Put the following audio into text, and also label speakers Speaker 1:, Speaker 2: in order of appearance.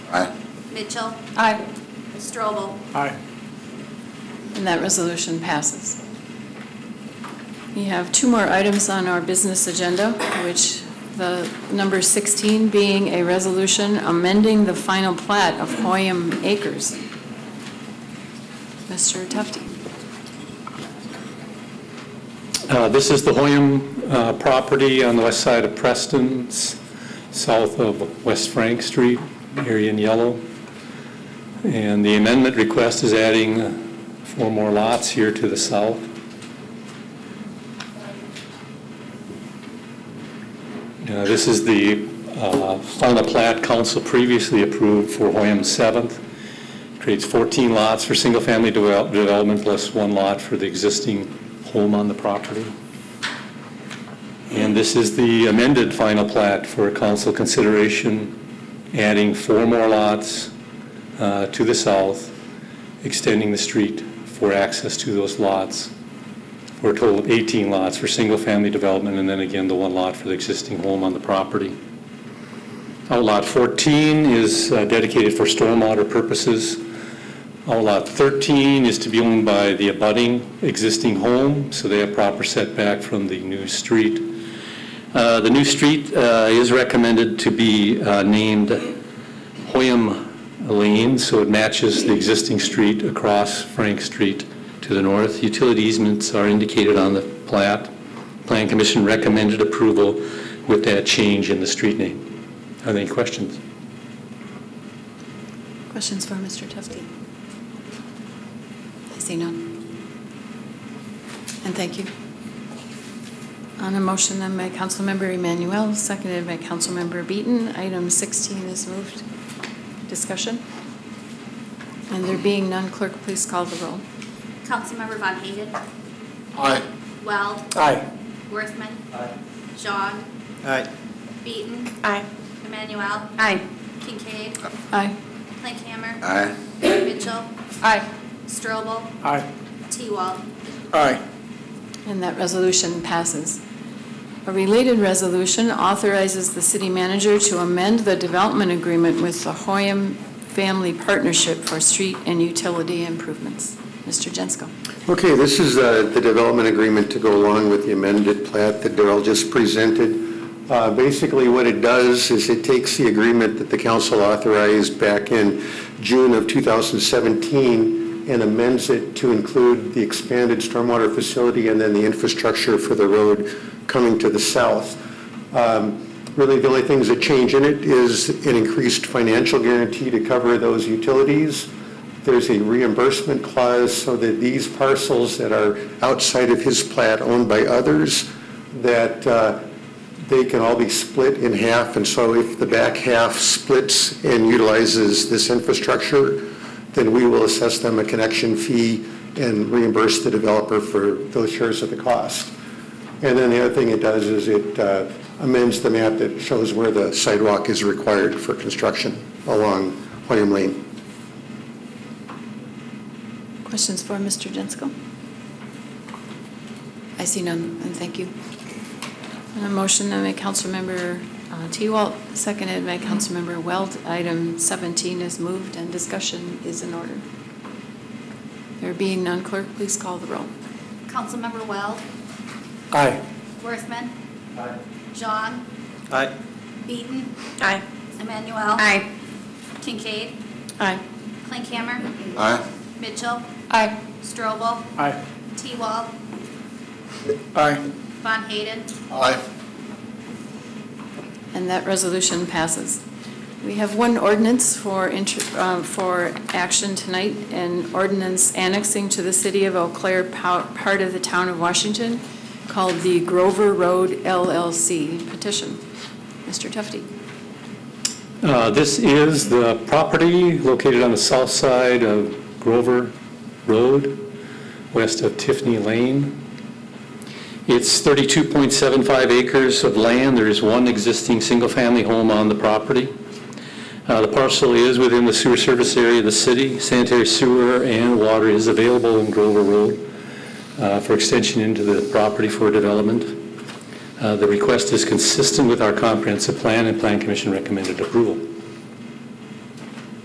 Speaker 1: Aye.
Speaker 2: Mitchell,
Speaker 3: Aye.
Speaker 2: Strobel,
Speaker 4: Aye.
Speaker 3: And that resolution passes. We have two more items on our business agenda, which the number 16 being a resolution amending the final plat of Hoyam Acres. Mr. Tufti.
Speaker 5: Uh, This is the Hoyum uh, property on the west side of Preston, s- south of West Frank Street, area in yellow. And the amendment request is adding uh, four more lots here to the south. Uh, This is the uh, final plat council previously approved for Hoyum 7th. Creates 14 lots for single-family devel- development plus one lot for the existing home on the property. And this is the amended final plat for council consideration, adding four more lots uh, to the south, extending the street for access to those lots, for a total of 18 lots for single-family development, and then again, the one lot for the existing home on the property. Outlot 14 is uh, dedicated for stormwater purposes. Outlot 13 is to be owned by the abutting existing home, so they have proper setback from the new street. Uh, The new street uh, is recommended to be uh, named Hoyam Lane, so it matches the existing street across Frank Street to the north. Utility easements are indicated on the plat. Plan Commission recommended approval with that change in the street name. Are there any questions?
Speaker 3: Questions for Mr. Tufti? I see none. And thank you. On a motion then by Councilmember Emanuel, seconded by Councilmember Beaton, item 16 is moved. Discussion? And there being none, clerk, please call the roll.
Speaker 2: Councilmember Von Hayden,
Speaker 1: Aye.
Speaker 2: Weld,
Speaker 4: Aye.
Speaker 2: Worthman. Jean,
Speaker 4: Aye.
Speaker 2: Beaton,
Speaker 3: Aye.
Speaker 2: Emmanuel,
Speaker 3: Aye.
Speaker 2: Kincaid,
Speaker 3: Aye.
Speaker 2: Linkhammer,
Speaker 1: Aye.
Speaker 2: Mitchell,
Speaker 3: Aye.
Speaker 2: Strobel,
Speaker 4: Aye.
Speaker 2: T-Wall.
Speaker 4: Aye.
Speaker 3: And that resolution passes. A related resolution authorizes the city manager to amend the development agreement with the Hoyam Family Partnership for street and utility improvements. Mr. Jensko.
Speaker 6: Okay, this is uh, the development agreement to go along with the amended plat that Darrell just presented. Uh, Basically, what it does is it takes the agreement that the council authorized back in June of 2017 and amends it to include the expanded stormwater facility and then the infrastructure for the road coming to the south. Um, Really, the only things that change in it is an increased financial guarantee to cover those utilities. There's a reimbursement clause so that these parcels that are outside of his plat owned by others, that uh, they can all be split in half. And so if the back half splits and utilizes this infrastructure, then we will assess them a connection fee and reimburse the developer for those shares of the cost. And then the other thing it does is it uh, amends the map that shows where the sidewalk is required for construction along William Lane.
Speaker 3: Questions for Mr. Jensko? I see none, and thank you. On a motion then by Councilmember uh, T-Walt, seconded by Councilmember Weld, item 17 is moved and discussion is in order. There being none, clerk, please call the roll.
Speaker 2: Councilmember Weld,
Speaker 4: Aye.
Speaker 2: Worthman. Jean,
Speaker 4: Aye.
Speaker 2: Beaton,
Speaker 3: Aye.
Speaker 2: Emmanuel.
Speaker 3: Aye.
Speaker 2: Kincaid,
Speaker 3: Aye.
Speaker 2: Linkhammer,
Speaker 1: Aye.
Speaker 2: Mitchell,
Speaker 3: Aye.
Speaker 2: Strobel,
Speaker 4: Aye.
Speaker 2: T-Wall,
Speaker 4: Aye.
Speaker 2: Von Hayden,
Speaker 1: Aye.
Speaker 3: And that resolution passes. We have one ordinance for, intro- uh, for action tonight, an ordinance annexing to the city of Eau Claire pow- part of the town of Washington called the Grover Road LLC petition. Mr. Tufti.
Speaker 5: Uh, This is the property located on the south side of Grover Road, west of Tiffany Lane. It's 32.75 acres of land. There is one existing single-family home on the property. Uh, The parcel is within the sewer service area of the city. Sanitary sewer and water is available in Grover Road uh, for extension into the property for development. Uh, The request is consistent with our comprehensive plan, and Plan Commission recommended approval.